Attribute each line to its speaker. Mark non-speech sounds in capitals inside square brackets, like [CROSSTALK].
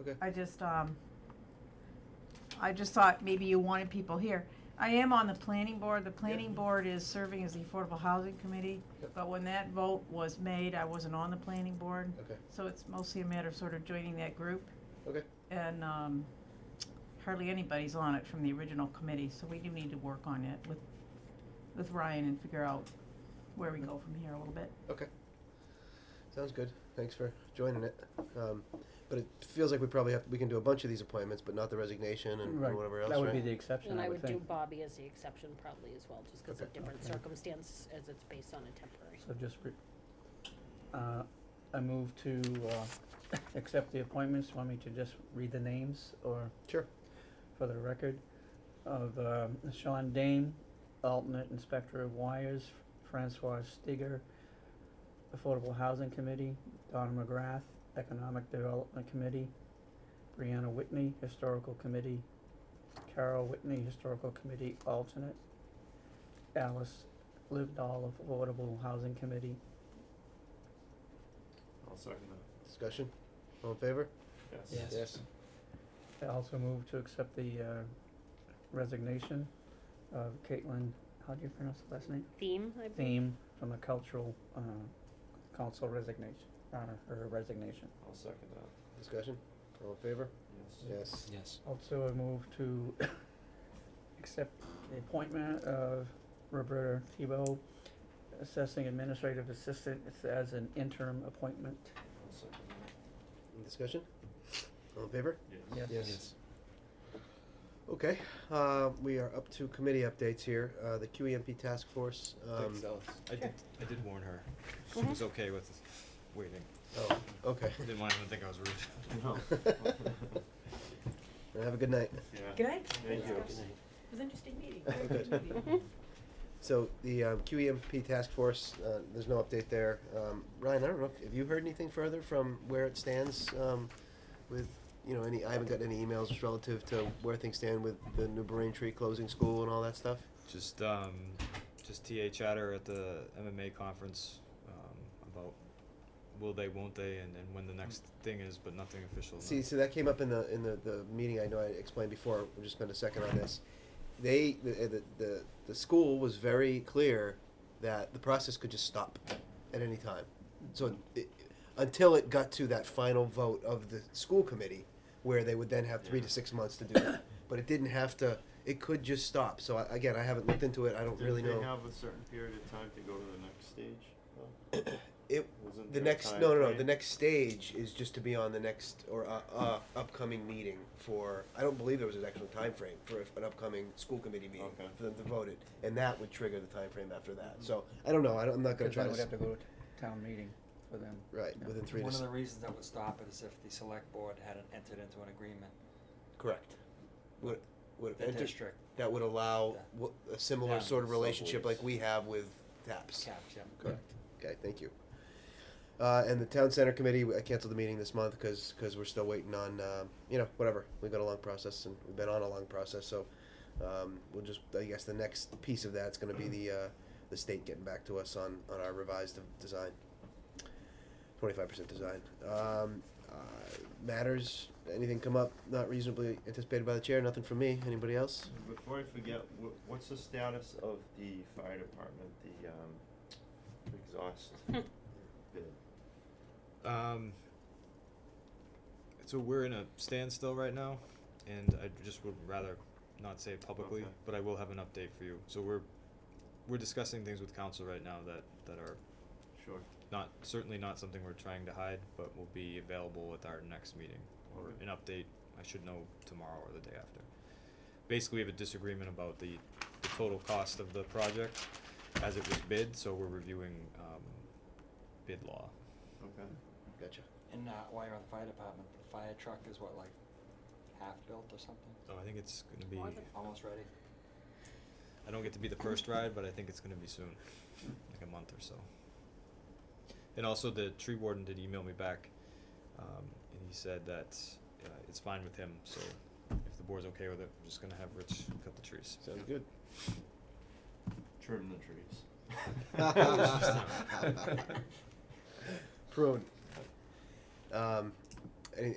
Speaker 1: Okay.
Speaker 2: I just, um, I just thought maybe you wanted people here. I am on the planning board. The planning board is serving as the Affordable Housing Committee.
Speaker 1: Yep.
Speaker 2: But when that vote was made, I wasn't on the planning board.
Speaker 1: Okay.
Speaker 2: So it's mostly a matter of sort of joining that group.
Speaker 1: Okay.
Speaker 2: And, um, hardly anybody's on it from the original committee, so we do need to work on it with, with Ryan and figure out where we go from here a little bit.
Speaker 1: Sounds good. Thanks for joining it. Um, but it feels like we probably have, we can do a bunch of these appointments, but not the resignation and and
Speaker 3: Right.
Speaker 1: whatever else,
Speaker 3: That would be
Speaker 1: right?
Speaker 3: the exception,
Speaker 4: And I
Speaker 3: I
Speaker 4: would
Speaker 3: would
Speaker 4: do
Speaker 3: think.
Speaker 4: Bobby as the exception probably as well, just because of
Speaker 1: Okay.
Speaker 4: different
Speaker 3: Okay.
Speaker 4: circumstance as it's based on a temporary.
Speaker 3: So just, re- uh, I move to, uh, [LAUGHS] accept the appointments. Want me to just read the names or?
Speaker 1: Sure.
Speaker 3: For the record of, um, Sean Dame, alternate inspector of wires, Francois Stiger, Affordable Housing Committee, Don McGrath, Economic Development Committee, Brianna Whitney, Historical Committee, Carol Whitney, Historical Committee alternate, Alice Livedall of Affordable Housing Committee.
Speaker 5: I'll second that.
Speaker 1: Discussion? All in favor?
Speaker 5: Yes.
Speaker 3: Yes. I also move to accept the uh, resignation of Caitlin, how do you pronounce the last name?
Speaker 4: Theme, I believe.
Speaker 3: Theme from the cultural uh, council resignation, honor her resignation.
Speaker 5: I'll second that.
Speaker 1: Discussion? All in favor?
Speaker 5: Yes.
Speaker 1: Yes.
Speaker 6: Yes.
Speaker 3: Also, I move to [COUGHS] accept the appointment of Roberta Thibault, assessing administrative assistant, it's as an interim appointment.
Speaker 5: I'll second that.
Speaker 1: Discussion? All in favor?
Speaker 3: Yes.
Speaker 1: Yes. Okay, uh, we are up to committee updates here. Uh, the QEMP task force, um,
Speaker 6: Thanks, Alice. I did, I did warn her. She was okay with waiting.
Speaker 1: oh, okay. [LAUGHS]
Speaker 6: Didn't want anyone to think I was rude.
Speaker 5: [LAUGHS]
Speaker 6: [LAUGHS]
Speaker 5: No.
Speaker 1: Have a good night.
Speaker 5: [LAUGHS] Yeah.
Speaker 2: Good night.
Speaker 5: Thank you.
Speaker 2: It was an interesting meeting.
Speaker 1: Very good
Speaker 2: meeting.
Speaker 4: [LAUGHS]
Speaker 1: So the um, QEMP task force, uh, there's no update there. Um, Ryan, I don't know, if- have you heard anything further from where it stands um, with, you know, any, I haven't gotten any emails relative to where things stand with the New Brain Tree closing school and all that stuff?
Speaker 6: Just, um, just TA chatter at the MMA conference, um, about will they, won't they, and, and when the next thing is, but nothing official. no.
Speaker 1: See,
Speaker 5: uh,
Speaker 1: so that came up in the, in the, the meeting, I know I explained before, we'll just spend a second on this. They, the, uh, the, the, the school was very clear that the process could just stop at any time. So, it, until it got to that final vote of the school committee, where they would then have three to
Speaker 5: Yeah.
Speaker 1: six months to do it. But it didn't have to, it could just stop, so I, again, I haven't looked into it, I don't really
Speaker 5: Didn't they
Speaker 1: know.
Speaker 5: have a certain period of time to go to the next stage, though?
Speaker 1: [COUGHS] It,
Speaker 5: Wasn't
Speaker 1: the
Speaker 5: there a
Speaker 1: next, no, no, no,
Speaker 5: timeframe?
Speaker 1: the next stage is just to be on the next, or, uh, uh, upcoming meeting for, I don't believe there was an actual time frame for if- an upcoming school committee meeting
Speaker 5: Okay.
Speaker 1: for them to vote it, and that would trigger the time frame after that,
Speaker 7: Mm-hmm.
Speaker 1: so, I don't know, I don't, I'm not gonna
Speaker 3: Because
Speaker 1: try
Speaker 3: I
Speaker 1: to,
Speaker 3: would
Speaker 1: s-
Speaker 3: have to go to town meeting for them.
Speaker 1: right,
Speaker 3: Yeah.
Speaker 1: within three to,
Speaker 7: One of
Speaker 1: s-
Speaker 7: the reasons that would stop it is if the select board hadn't entered into an agreement,
Speaker 1: correct. Would, would
Speaker 7: the
Speaker 1: have entered,
Speaker 7: district
Speaker 1: that would allow
Speaker 7: Yeah.
Speaker 1: w- a similar
Speaker 7: Yeah,
Speaker 1: sort of relationship
Speaker 7: subways.
Speaker 1: like we have with TAPS.
Speaker 7: caps, yeah.
Speaker 1: Correct. Okay, thank you. Uh, and the town center committee, I canceled the meeting this month because we're still waiting on um, you know whatever we've got a long process and we've been on a long process so um, we'll just I guess the next piece of that's going to be the uh, the state getting back to us on on our revised de- design, twenty five percent design um, uh, matters. Anything come up not reasonably anticipated by the chair? Nothing from me. Anybody else?
Speaker 5: Before I forget, wh- what's the status of the fire department, the, um, exhaust
Speaker 4: [LAUGHS]
Speaker 5: bid?
Speaker 6: Um, so we're in a standstill right now, and I just would rather not say it publicly,
Speaker 5: Okay.
Speaker 6: but I will have an update for you. So we're we're discussing things with council right now that that are
Speaker 5: Sure.
Speaker 6: not certainly not something we're trying to hide, but will be available at our next meeting or
Speaker 5: Okay.
Speaker 6: an update. I should know tomorrow or the day after. Basically, we have a disagreement about the, the total cost of the project as it was bid, so we're reviewing um, bid law.
Speaker 5: Okay.
Speaker 1: Gotcha.
Speaker 7: And uh, while you're on the fire department, the fire truck is what, like half built or something?
Speaker 6: So I think it's going to be.
Speaker 4: More than-
Speaker 7: Almost ready?
Speaker 6: I don't get to be the first ride, but I think it's gonna be soon, like a month or so. And also, the tree warden did email me back, um, and he said that uh, it's fine with him. So, if the board's okay with it, we're just gonna have Rich cut the trees.
Speaker 1: Sounds good.
Speaker 5: Trim the trees.
Speaker 1: [LAUGHS]
Speaker 5: [LAUGHS]
Speaker 1: Prune. Um, any,